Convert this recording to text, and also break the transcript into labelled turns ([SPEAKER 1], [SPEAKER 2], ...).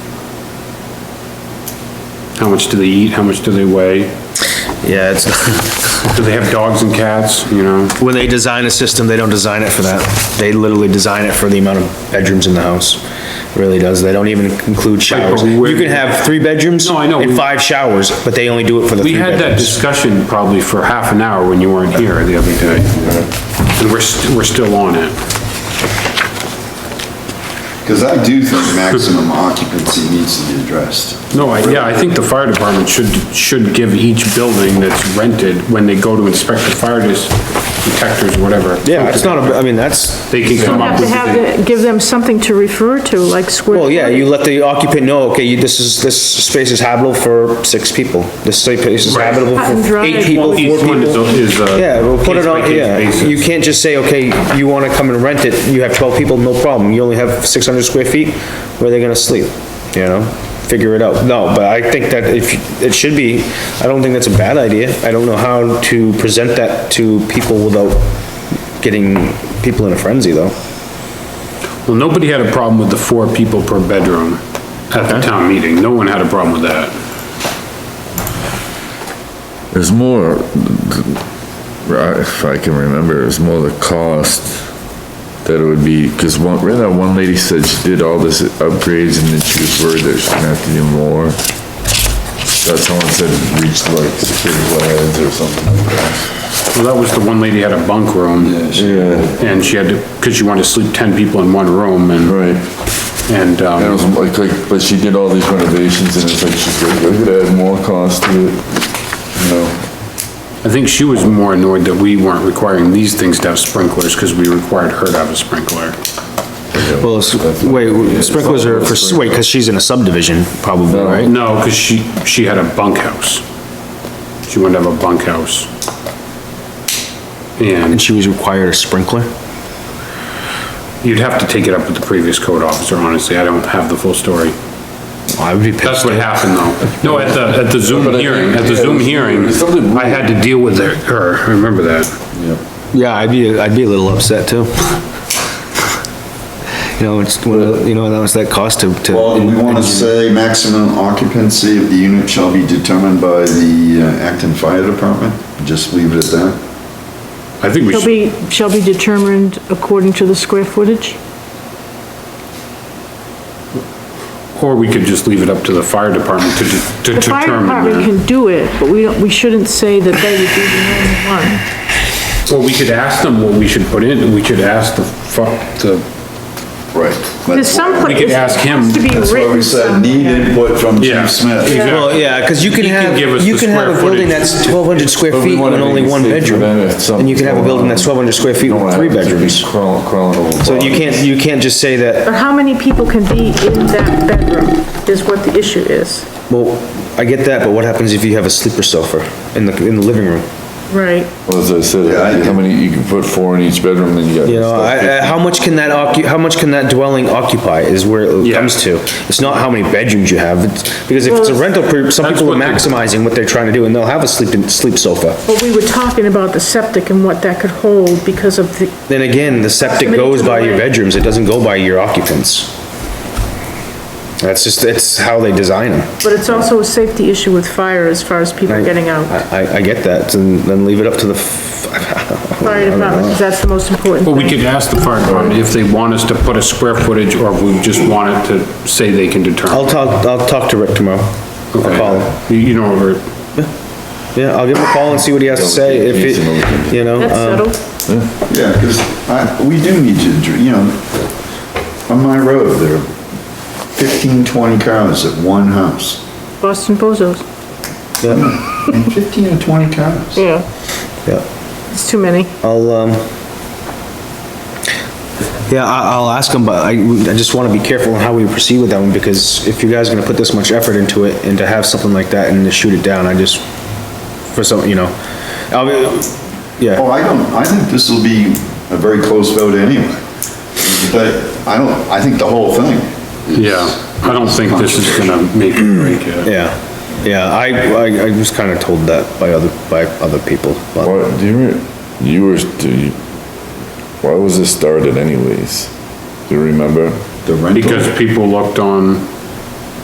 [SPEAKER 1] How much do they eat? How much do they weigh?
[SPEAKER 2] Yeah, it's,
[SPEAKER 1] Do they have dogs and cats, you know?
[SPEAKER 2] when they design a system, they don't design it for that. They literally design it for the amount of bedrooms in the house. Really does. They don't even include showers.
[SPEAKER 1] but where-
[SPEAKER 2] You can have three bedrooms.
[SPEAKER 1] No, I know.
[SPEAKER 2] And five showers, but they only do it for the
[SPEAKER 1] We
[SPEAKER 2] three
[SPEAKER 1] had that
[SPEAKER 2] bedrooms.
[SPEAKER 1] discussion probably for half an hour when you weren't here the other day. And we're, st- we're still on it.
[SPEAKER 3] Because I do think maximum occupancy needs to be addressed.
[SPEAKER 1] No, I, yeah, I think the fire department should, should give each building that's rented, when they go to inspect the fire dis- detectors or whatever.
[SPEAKER 2] Yeah, it's not, a- I mean, that's,
[SPEAKER 1] They can come
[SPEAKER 4] Have
[SPEAKER 1] up
[SPEAKER 4] to
[SPEAKER 1] with.
[SPEAKER 4] have, it- give them something to refer to, like square.
[SPEAKER 2] well, yeah, you let the occupant know, okay, you- this is, this space is habitable for six people. This space is
[SPEAKER 1] Right.
[SPEAKER 2] habitable
[SPEAKER 4] Cut and
[SPEAKER 2] for
[SPEAKER 4] dry.
[SPEAKER 2] eight people, four
[SPEAKER 1] Each one is,
[SPEAKER 2] people.
[SPEAKER 1] a- is a.
[SPEAKER 2] Yeah, we'll put it on,
[SPEAKER 1] case-by-case
[SPEAKER 2] yeah,
[SPEAKER 1] basis.
[SPEAKER 2] you can't just say, okay, you wanna come and rent it, you have twelve people, no problem, you only have six hundred square feet, where are they gonna sleep? You know, figure it out, no, but I think that if, it should be, I don't think that's a bad idea, I don't know how to present that to people without getting people in a frenzy, though.
[SPEAKER 1] Well, nobody had a problem with the four people per bedroom at the town meeting. No one had a problem with that.
[SPEAKER 5] There's more, right, if I can remember, it was more the cost that it would be, because one, right now, one lady said she did all this upgrades and then she was worried that she's gonna have to do more. That someone said reached like security lines or something like that.
[SPEAKER 1] Well, that was the one lady had a bunk room.
[SPEAKER 5] Yeah.
[SPEAKER 1] And she had to, because she wanted to sleep 10 people in one room and,
[SPEAKER 5] Right.
[SPEAKER 1] and,
[SPEAKER 5] And it
[SPEAKER 1] um,
[SPEAKER 5] was like, like, but she did all these renovations and it's like, she's like, I could add more cost to it, you know?
[SPEAKER 1] I think she was more annoyed that we weren't requiring these things to have sprinklers because we required her to have a sprinkler.
[SPEAKER 2] Well, s- wait, sprinklers are for, s- wait, cause she's in a subdivision, probably, right?
[SPEAKER 1] No, because she, she had a bunkhouse. She wanted to have a bunkhouse. And
[SPEAKER 2] And she was required a sprinkler?
[SPEAKER 1] you'd have to take it up with the previous code officer, honestly. I don't have the full story.
[SPEAKER 2] I would be pissed.
[SPEAKER 1] That's what happened though. No, at the, at the Zoom
[SPEAKER 5] But I think-
[SPEAKER 1] hearing, at the
[SPEAKER 5] yeah,
[SPEAKER 1] Zoom
[SPEAKER 5] it's-
[SPEAKER 1] hearing,
[SPEAKER 5] it's something-
[SPEAKER 1] I had to deal with her- her, I remember that.
[SPEAKER 2] Yeah, I'd be, I'd be a little upset too. You know, it's, one of- you know, that was that cost to, to.
[SPEAKER 3] Well, do we want to say maximum occupancy of the unit shall be determined by the uh, Acton Fire Department? Just leave it at that?
[SPEAKER 1] I think we
[SPEAKER 4] Shall
[SPEAKER 1] should,
[SPEAKER 4] be, shall be determined according to the square footage?
[SPEAKER 1] or we could just leave it up to the fire department to de- to
[SPEAKER 4] The fire department
[SPEAKER 1] determine.
[SPEAKER 4] can do it, but we don't, we shouldn't say that they would be the only one.
[SPEAKER 1] that. Or we could ask them what we should put in, we could ask the, fu- the,
[SPEAKER 3] Right.
[SPEAKER 4] There's some.
[SPEAKER 1] We could
[SPEAKER 4] place-
[SPEAKER 1] ask him.
[SPEAKER 4] Has to be
[SPEAKER 3] That's why we
[SPEAKER 4] written
[SPEAKER 3] said need
[SPEAKER 4] somewhere.
[SPEAKER 3] input from
[SPEAKER 1] Yeah.
[SPEAKER 3] Chief Smith.
[SPEAKER 2] Well, yeah, cause you can
[SPEAKER 1] He can
[SPEAKER 2] have,
[SPEAKER 1] give us
[SPEAKER 2] you
[SPEAKER 1] the
[SPEAKER 2] can have a
[SPEAKER 1] square
[SPEAKER 2] building
[SPEAKER 1] footage.
[SPEAKER 2] that's twelve hundred square
[SPEAKER 5] But we
[SPEAKER 2] feet and
[SPEAKER 5] wanna
[SPEAKER 2] only
[SPEAKER 5] make it
[SPEAKER 2] one
[SPEAKER 5] safe
[SPEAKER 2] bedroom.
[SPEAKER 5] for them if something's
[SPEAKER 2] And you can have a
[SPEAKER 5] going
[SPEAKER 2] building
[SPEAKER 5] on.
[SPEAKER 2] that's twelve hundred square feet
[SPEAKER 5] You don't
[SPEAKER 2] with
[SPEAKER 5] have
[SPEAKER 2] three
[SPEAKER 5] to be
[SPEAKER 2] bedrooms.
[SPEAKER 5] Crawling, crawling over.
[SPEAKER 2] So you can't, you can't just say that,
[SPEAKER 4] Or how many people can be in that bedroom is what the issue is.
[SPEAKER 2] well, I get that, but what happens if you have a sleeper sofa in the, in the living room?
[SPEAKER 4] Right.
[SPEAKER 5] Well, As I
[SPEAKER 3] Yeah, I
[SPEAKER 5] said, how
[SPEAKER 3] can-
[SPEAKER 5] many, you can put four in each bedroom, then you got.
[SPEAKER 2] You know, I, I, how much can that occu, how much can that dwelling occupy is where it
[SPEAKER 1] Yeah.
[SPEAKER 2] comes to. It's not how many bedrooms you have, it's, because if it's a rental, per- some
[SPEAKER 1] That's
[SPEAKER 2] people are
[SPEAKER 1] what the-
[SPEAKER 2] maximizing what they're trying to do, and they'll have a sleep, sleep sofa.
[SPEAKER 4] But we were talking about the septic and what that could hold because of the,
[SPEAKER 2] Then again, the septic goes by your bedrooms, it doesn't go by your occupants. That's just, it's how they design them.
[SPEAKER 4] but it's also a safety issue with fire as far as people getting out.
[SPEAKER 2] I, I, I get that, and then leave it up to the, f-
[SPEAKER 4] Fire department, 'cause that's the most important
[SPEAKER 1] but we
[SPEAKER 4] thing.
[SPEAKER 1] could ask the fire department if they want us to put a square footage or if we just want it to say they can
[SPEAKER 2] I'll
[SPEAKER 1] determine.
[SPEAKER 2] talk, I'll talk to Rick tomorrow. I'll call him.
[SPEAKER 1] Okay. You you know, or
[SPEAKER 2] Yeah, I'll give him a call and see what he has to say, if it, you know.
[SPEAKER 4] That's
[SPEAKER 2] um,
[SPEAKER 4] settled.
[SPEAKER 3] Yeah, because I, we do need to, dr- you know, on my road, there are 15, 20 cars at one house.
[SPEAKER 4] Boston Bozos.
[SPEAKER 3] And 15 or 20 cars.
[SPEAKER 4] Yeah.
[SPEAKER 2] Yeah,
[SPEAKER 4] It's too many.
[SPEAKER 2] I'll, um, yeah, I, I'll ask him, but I, I just wanna be careful on how we proceed with that one, because if you guys are gonna put this much effort into it, and to have something like that and to shoot it down, I just, for some, you know, I'll, be- yeah.
[SPEAKER 3] Oh, I don't, I think this will be a very close vote anyway. But I don't, I think the whole thing.
[SPEAKER 1] Yeah, I don't think this is gonna make or break it.
[SPEAKER 2] Yeah, yeah, I, I, I was kinda told that by other, by other people, but
[SPEAKER 5] What, do you, re- you were, do you, why was this started anyways? Do you remember?
[SPEAKER 3] The rental.
[SPEAKER 1] Because people looked on